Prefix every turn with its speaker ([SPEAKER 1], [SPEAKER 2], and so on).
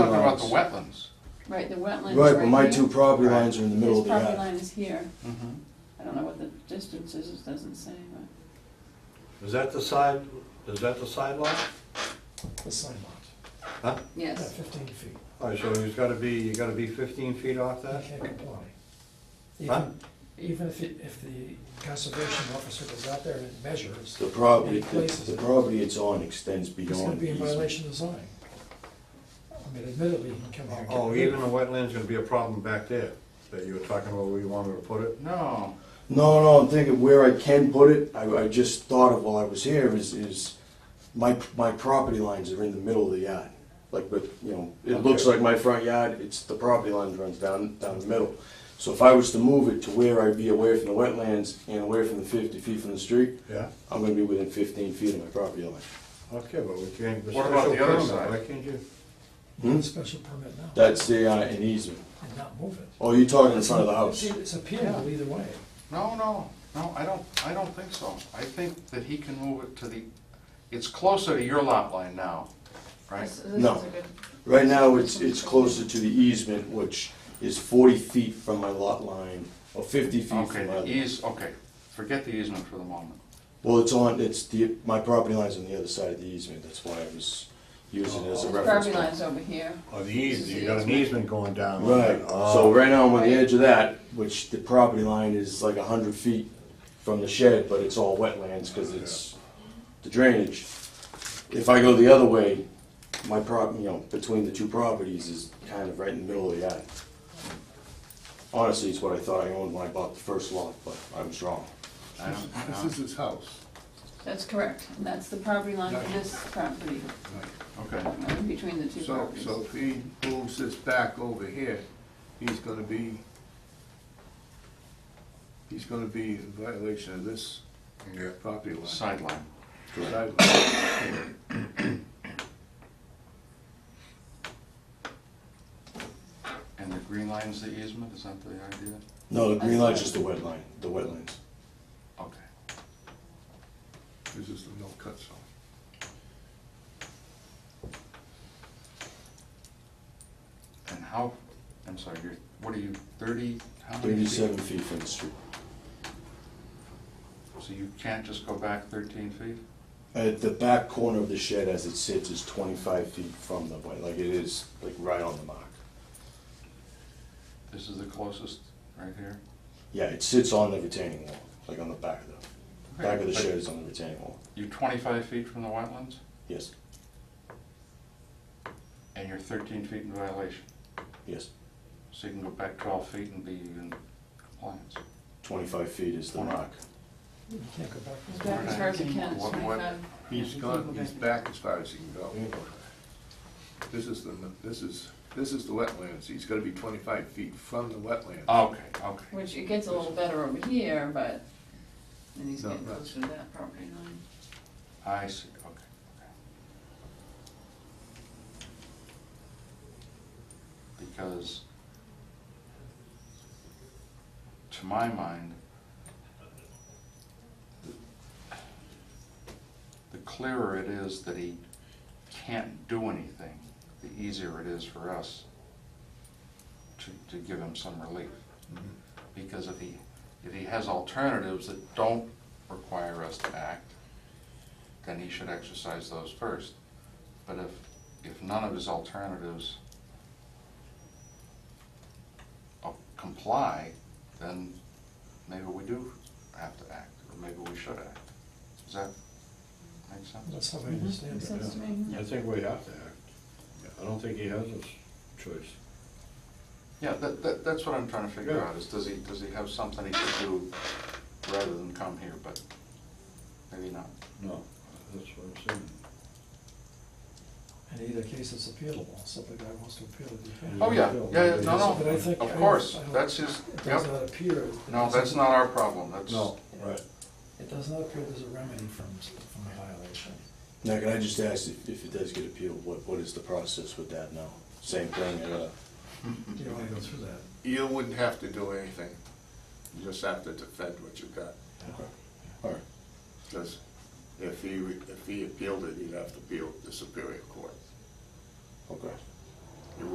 [SPEAKER 1] the
[SPEAKER 2] house.
[SPEAKER 1] wetlands.
[SPEAKER 3] Right, the wetlands right
[SPEAKER 2] Right, but my
[SPEAKER 3] here.
[SPEAKER 2] two property
[SPEAKER 1] Right.
[SPEAKER 2] lines are in the middle
[SPEAKER 3] His
[SPEAKER 2] of the
[SPEAKER 3] property
[SPEAKER 2] yard.
[SPEAKER 3] line is here.
[SPEAKER 4] Mm-hmm.
[SPEAKER 1] Mhm.
[SPEAKER 3] I don't know what the distance is, it doesn't say, but.
[SPEAKER 5] Is that the side, is that the side lot?
[SPEAKER 6] The sign lot,
[SPEAKER 5] Huh?
[SPEAKER 6] yeah,
[SPEAKER 3] Yes,
[SPEAKER 6] fifteen feet,
[SPEAKER 5] All right, so he's gotta be, you gotta be fifteen feet off
[SPEAKER 6] you
[SPEAKER 5] that?
[SPEAKER 6] can't comply.
[SPEAKER 5] Huh?
[SPEAKER 6] Even, even if, it- if the conservation officer goes out there and measures,
[SPEAKER 2] The property,
[SPEAKER 6] Any places.
[SPEAKER 2] the property it's on extends
[SPEAKER 6] he's gonna
[SPEAKER 2] beyond
[SPEAKER 6] be
[SPEAKER 2] the
[SPEAKER 6] in
[SPEAKER 2] easement.
[SPEAKER 6] violation of zoning. I mean, admittedly, he can come here. and get
[SPEAKER 5] Oh,
[SPEAKER 6] rid of
[SPEAKER 5] even the wetland's gonna be a problem back there, that you were talking about where you wanted to put it?
[SPEAKER 1] No,
[SPEAKER 2] No, no, I'm thinking where I can put it, I, I just thought of while I was here is, is my, my property lines are in the middle of the yard. Like, but, you know, it looks
[SPEAKER 5] Okay.
[SPEAKER 2] like my front yard, it's, the property line runs down, down the middle. So if I was to move it to where I'd be away from the wetlands and away from the fifty feet from the street,
[SPEAKER 5] Yeah,
[SPEAKER 2] I'm gonna be within fifteen feet of my property line.
[SPEAKER 5] okay, but we can't.
[SPEAKER 1] What about the other side?
[SPEAKER 5] Why can't you?
[SPEAKER 2] Hmm?
[SPEAKER 6] a Special permit now,
[SPEAKER 2] That's the, uh, an easement.
[SPEAKER 6] and not move it.
[SPEAKER 2] Oh, you're talking in front of the house?
[SPEAKER 6] It's- It's appealable either way.
[SPEAKER 1] no, no, no, I don't, I don't think so. I think that he can move it to the, it's closer to your lot line now, right?
[SPEAKER 3] this, this is
[SPEAKER 2] No.
[SPEAKER 3] a good,
[SPEAKER 2] Right now, it's, it's closer to the easement, which is forty feet from my lot line, or fifty feet
[SPEAKER 1] Okay,
[SPEAKER 2] from my.
[SPEAKER 1] the eas, okay, forget the easement for the moment.
[SPEAKER 2] Well, it's on, it's the, my property line's on the other side of the easement, that's why I was using it as
[SPEAKER 3] his
[SPEAKER 2] a reference.
[SPEAKER 3] Oh, property
[SPEAKER 2] point.
[SPEAKER 3] line's over here.
[SPEAKER 5] Oh, the easement, you got an easement going down. Oh.
[SPEAKER 2] Right, so right now I'm on the edge of that, which the property line is like a hundred feet from the shed, but it's all wetlands, cause it's the drainage. If I go the other way, my prop, you know, between the two properties is kind of right in the middle of the yard. Honestly, it's what I thought I owned when I bought the first lot, but I was wrong.
[SPEAKER 1] I don't- I
[SPEAKER 4] This
[SPEAKER 1] don't-
[SPEAKER 4] is his house.
[SPEAKER 3] That's correct, and that's the property line for this property,
[SPEAKER 1] Okay,
[SPEAKER 3] uh, between the two
[SPEAKER 4] So,
[SPEAKER 3] properties.
[SPEAKER 4] so if he moves this back over here, he's gonna be, he's gonna be in violation of this
[SPEAKER 5] Yeah.
[SPEAKER 4] property line.
[SPEAKER 1] sideline.
[SPEAKER 4] Side line.
[SPEAKER 1] And the green line's the easement, is that the idea?
[SPEAKER 2] No, the green line's just the wet line, the wetlands.
[SPEAKER 1] Okay.
[SPEAKER 4] This is the no-cut zone.
[SPEAKER 1] And how, I'm sorry, you're, what are you, thirty? how many feet?
[SPEAKER 2] Thirty-seven feet from the street.
[SPEAKER 1] So you can't just go back thirteen feet?
[SPEAKER 2] Uh, the back corner of the shed as it sits is twenty-five feet from the wet, like it is, like right on the mark.
[SPEAKER 1] This is the closest, right here?
[SPEAKER 2] Yeah, it sits on the retaining wall, like on the back of the, back of the
[SPEAKER 1] But
[SPEAKER 2] shed is on the retaining wall,
[SPEAKER 1] You're twenty-five feet from the wetlands,
[SPEAKER 2] yes,
[SPEAKER 1] and you're thirteen feet in violation,
[SPEAKER 2] yes.
[SPEAKER 1] so you can go back twelve feet and be in compliance.
[SPEAKER 2] Twenty-five feet is the mark.
[SPEAKER 6] You can't go back.
[SPEAKER 3] As back as far as it can, it's
[SPEAKER 1] What- what-
[SPEAKER 3] twenty-five.
[SPEAKER 4] He's
[SPEAKER 3] Yeah,
[SPEAKER 4] gone,
[SPEAKER 3] people
[SPEAKER 4] he's
[SPEAKER 3] back.
[SPEAKER 4] back as far as he can go. This is the, this is, this is the wetlands. He's gotta be twenty-five feet from the wetlands.
[SPEAKER 1] Okay, okay.
[SPEAKER 3] Which it gets a little better over here, but then he's
[SPEAKER 4] No,
[SPEAKER 3] getting
[SPEAKER 4] no.
[SPEAKER 3] closer to that property line.
[SPEAKER 1] I see, okay. Because to my mind, the clearer it is that he can't do anything, the easier it is for us to, to give him some relief. Because if he, if he has alternatives that don't require us to act, then he should exercise those first. But if, if none of his alternatives uh, comply, then maybe we do have to act, or maybe we should act. Does that make sense?
[SPEAKER 6] That's how I
[SPEAKER 3] Mm-hmm.
[SPEAKER 6] understand
[SPEAKER 3] Makes
[SPEAKER 6] it.
[SPEAKER 3] sense to me?
[SPEAKER 5] I think we have to act. I don't think he has a choice.
[SPEAKER 1] Yeah, that, that, that's what I'm trying to figure
[SPEAKER 5] Yeah.
[SPEAKER 1] out, is does he, does he have something he could do rather than come here, but maybe not.
[SPEAKER 5] No, that's what I'm saying.
[SPEAKER 6] In either case, it's appealable, so if the guy wants to appeal it, he can.
[SPEAKER 1] Oh, yeah, yeah, yeah, no,
[SPEAKER 6] But I
[SPEAKER 1] no,
[SPEAKER 6] think-
[SPEAKER 1] of course,
[SPEAKER 6] I don't-
[SPEAKER 1] that's his,
[SPEAKER 6] It does
[SPEAKER 1] yep,
[SPEAKER 6] not appear.
[SPEAKER 1] no, that's not our problem, that's.
[SPEAKER 5] No, right.
[SPEAKER 6] It does not appear there's a remedy from, from a violation.
[SPEAKER 2] Now, can I just ask if, if it does get appealed, what, what is the process with that now? Same thing, uh, I gotta,
[SPEAKER 6] You don't wanna go through that.
[SPEAKER 4] You wouldn't have to do anything. You just have to defend what you've got.
[SPEAKER 2] alright,
[SPEAKER 4] Because if he, if he appealed it, he'd have to appeal to Superior Court.
[SPEAKER 2] okay.